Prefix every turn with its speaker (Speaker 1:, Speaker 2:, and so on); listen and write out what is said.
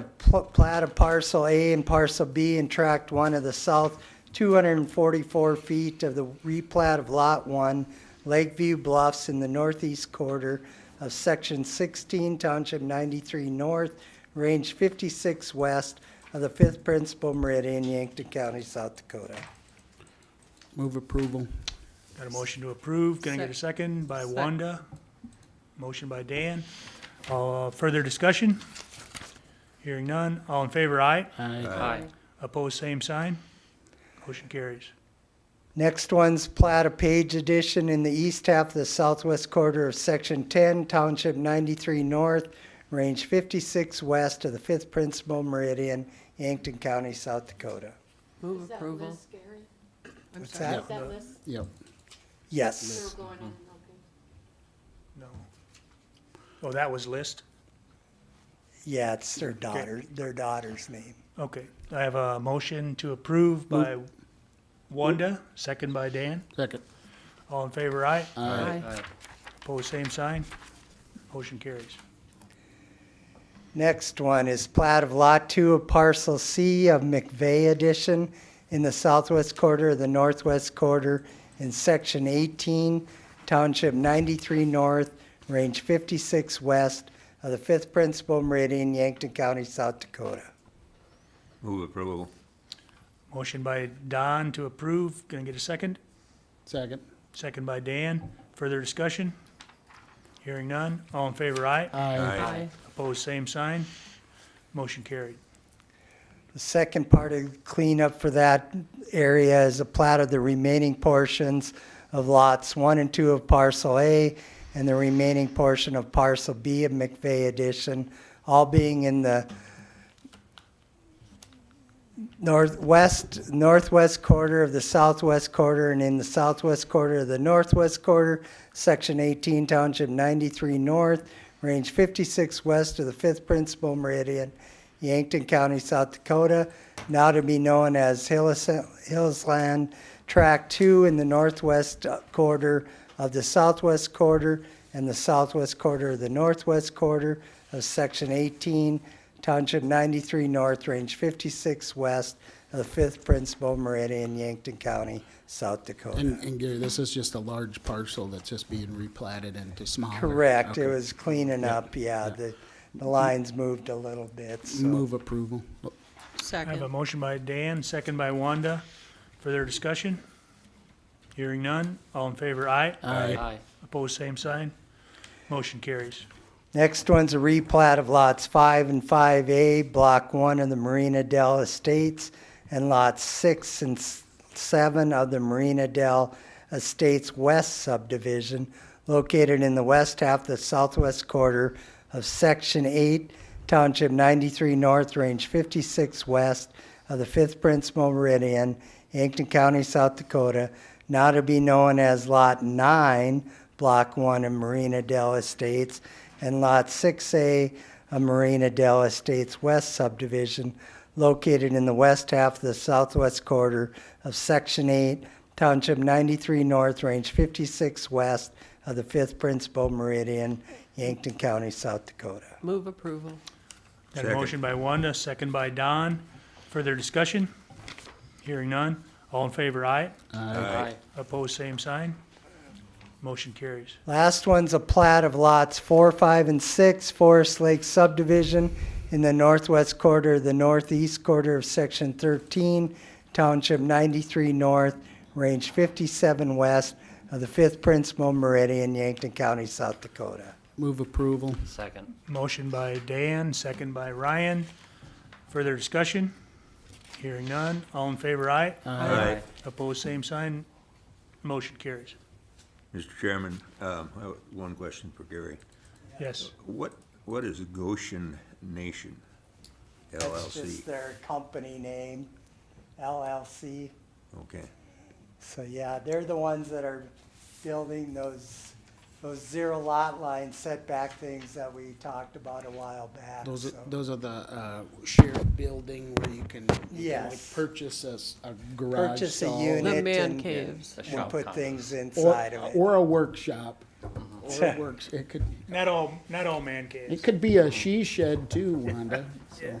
Speaker 1: pl- plat of parcel A and parcel B in tract one of the south, two hundred and forty-four feet of the replat of lot one, Lakeview Bluffs in the northeast quarter of section sixteen, township ninety-three north, range fifty-six west of the fifth principal meridian, Yankton County, South Dakota.
Speaker 2: Move approval.
Speaker 3: Got a motion to approve. Can I get a second? By
Speaker 4: Sec-
Speaker 3: Wanda. Motion by Dan. Uh, further discussion? Hearing none. All in favor, aye.
Speaker 2: Aye.
Speaker 4: Aye.
Speaker 3: Opposed, same sign. Motion carries.
Speaker 1: Next one's plat of Page Edition in the east half of the southwest quarter of Section 10, Township 93 North, Range 56 West of the 5th Principal Meridian, Yankton County, South Dakota.
Speaker 4: Move
Speaker 5: Is that
Speaker 4: approval.
Speaker 5: list scary?
Speaker 4: I'm
Speaker 1: What's
Speaker 4: sorry.
Speaker 1: that?
Speaker 5: Is that list
Speaker 2: Yep.
Speaker 1: Yes,
Speaker 5: still going on? Okay.
Speaker 3: No. Oh, that was list?
Speaker 1: yeah, it's their daughter, their daughter's name.
Speaker 3: Okay. I have a motion to approve by Wanda, second by Dan.
Speaker 2: Second.
Speaker 3: All in favor, aye.
Speaker 4: Aye.
Speaker 3: Opposed, same sign. Motion carries.
Speaker 1: Next one is plat of Lot 2 of Parcel C of McVeigh Edition in the southwest quarter of the northwest quarter in Section 18, Township 93 North, Range 56 West of the 5th Principal Meridian, Yankton County, South Dakota.
Speaker 6: Move approval.
Speaker 3: Motion by Don to approve. Can I get a second?
Speaker 2: Second.
Speaker 3: Second by Dan. Further discussion? Hearing none. All in favor, aye.
Speaker 2: Aye.
Speaker 4: Aye.
Speaker 3: Opposed, same sign. Motion carried.
Speaker 1: The second part of cleanup for that area is a plat of the remaining portions of lots one and two of parcel A and the remaining portion of parcel B of McVeigh addition, all being in the northwest, northwest quarter of the southwest quarter and in the southwest quarter of the northwest quarter, section eighteen, township ninety-three north, range fifty-six west of the fifth principal meridian, Yankton County, South Dakota, now to be known as Hillis, Hillsland Track Two in the northwest quarter of the southwest quarter and the southwest quarter of the northwest quarter of section eighteen, Township 93 North, Range 56 West, of the 5th Principal Meridian, Yankton County, South Dakota.
Speaker 2: And, and Gary, this is just a large parcel that's just being replatted into smaller.
Speaker 1: Correct, it
Speaker 2: Okay.
Speaker 1: was cleaning up, yeah, the, the lines moved a little bit, so.
Speaker 2: Move approval.
Speaker 3: I have a
Speaker 4: Second.
Speaker 3: motion by Dan, second by Wanda. Further discussion? Hearing none. All in favor, aye.
Speaker 2: Aye.
Speaker 3: Opposed, same sign. Motion carries.
Speaker 1: Next one's a replat of lots 5 and 5A, Block 1 of the Marina Del Estates, and lots 6 and s- 7 of the Marina Del Estates West subdivision, located in the west half of the southwest quarter of Section 8, Township 93 North, Range 56 West of the 5th Principal Meridian, Yankton County, South Dakota, now to be known as Lot 9, Block 1 of Marina Del Estates, and Lot 6A of Marina Del Estates West subdivision, located in the west half of the southwest quarter of Section 8, Township 93 North, Range 56 West of the 5th Principal Meridian, Yankton County, South Dakota.
Speaker 4: Move approval.
Speaker 3: Got a
Speaker 6: Second.
Speaker 3: motion by Wanda, second by Don. Further discussion? Hearing none. All in favor, aye.
Speaker 6: Aye.
Speaker 3: Opposed, same sign. Motion carries.
Speaker 1: Last one's a plat of lots four, five, and six, Forest Lake subdivision in the northwest quarter, the northeast quarter of section thirteen, township ninety-three north, range fifty-seven west of the fifth principal meridian, Yankton County, South Dakota.
Speaker 2: Move approval.
Speaker 7: Second.
Speaker 3: Motion by Dan, second by Ryan. Further discussion? Hearing none. All in favor, aye.
Speaker 6: Aye.
Speaker 3: Opposed, same sign. Motion carries.
Speaker 6: Mr. Chairman, um, I have one question for Gary.
Speaker 3: Yes.
Speaker 6: What, what is Goshen Nation
Speaker 1: That's just
Speaker 6: LLC?
Speaker 1: their company name, LLC.
Speaker 6: Okay,
Speaker 1: So, yeah, they're the ones that are building those, those zero lot line setback things that we talked about a while back,
Speaker 2: Those are,
Speaker 1: so.
Speaker 2: those are the, uh, shared building where you can, you can like
Speaker 1: Yes.
Speaker 2: purchase a, s- a garage.
Speaker 1: purchase a
Speaker 2: stall
Speaker 1: unit
Speaker 4: The man
Speaker 1: and,
Speaker 4: caves.
Speaker 7: A
Speaker 1: and
Speaker 7: shop
Speaker 1: put
Speaker 7: complex.
Speaker 1: things inside
Speaker 2: Or,
Speaker 1: of it.
Speaker 2: or a workshop. Or a works, it could,
Speaker 3: Not all, not all man caves.
Speaker 2: it could be a she shed too, Wanda. so.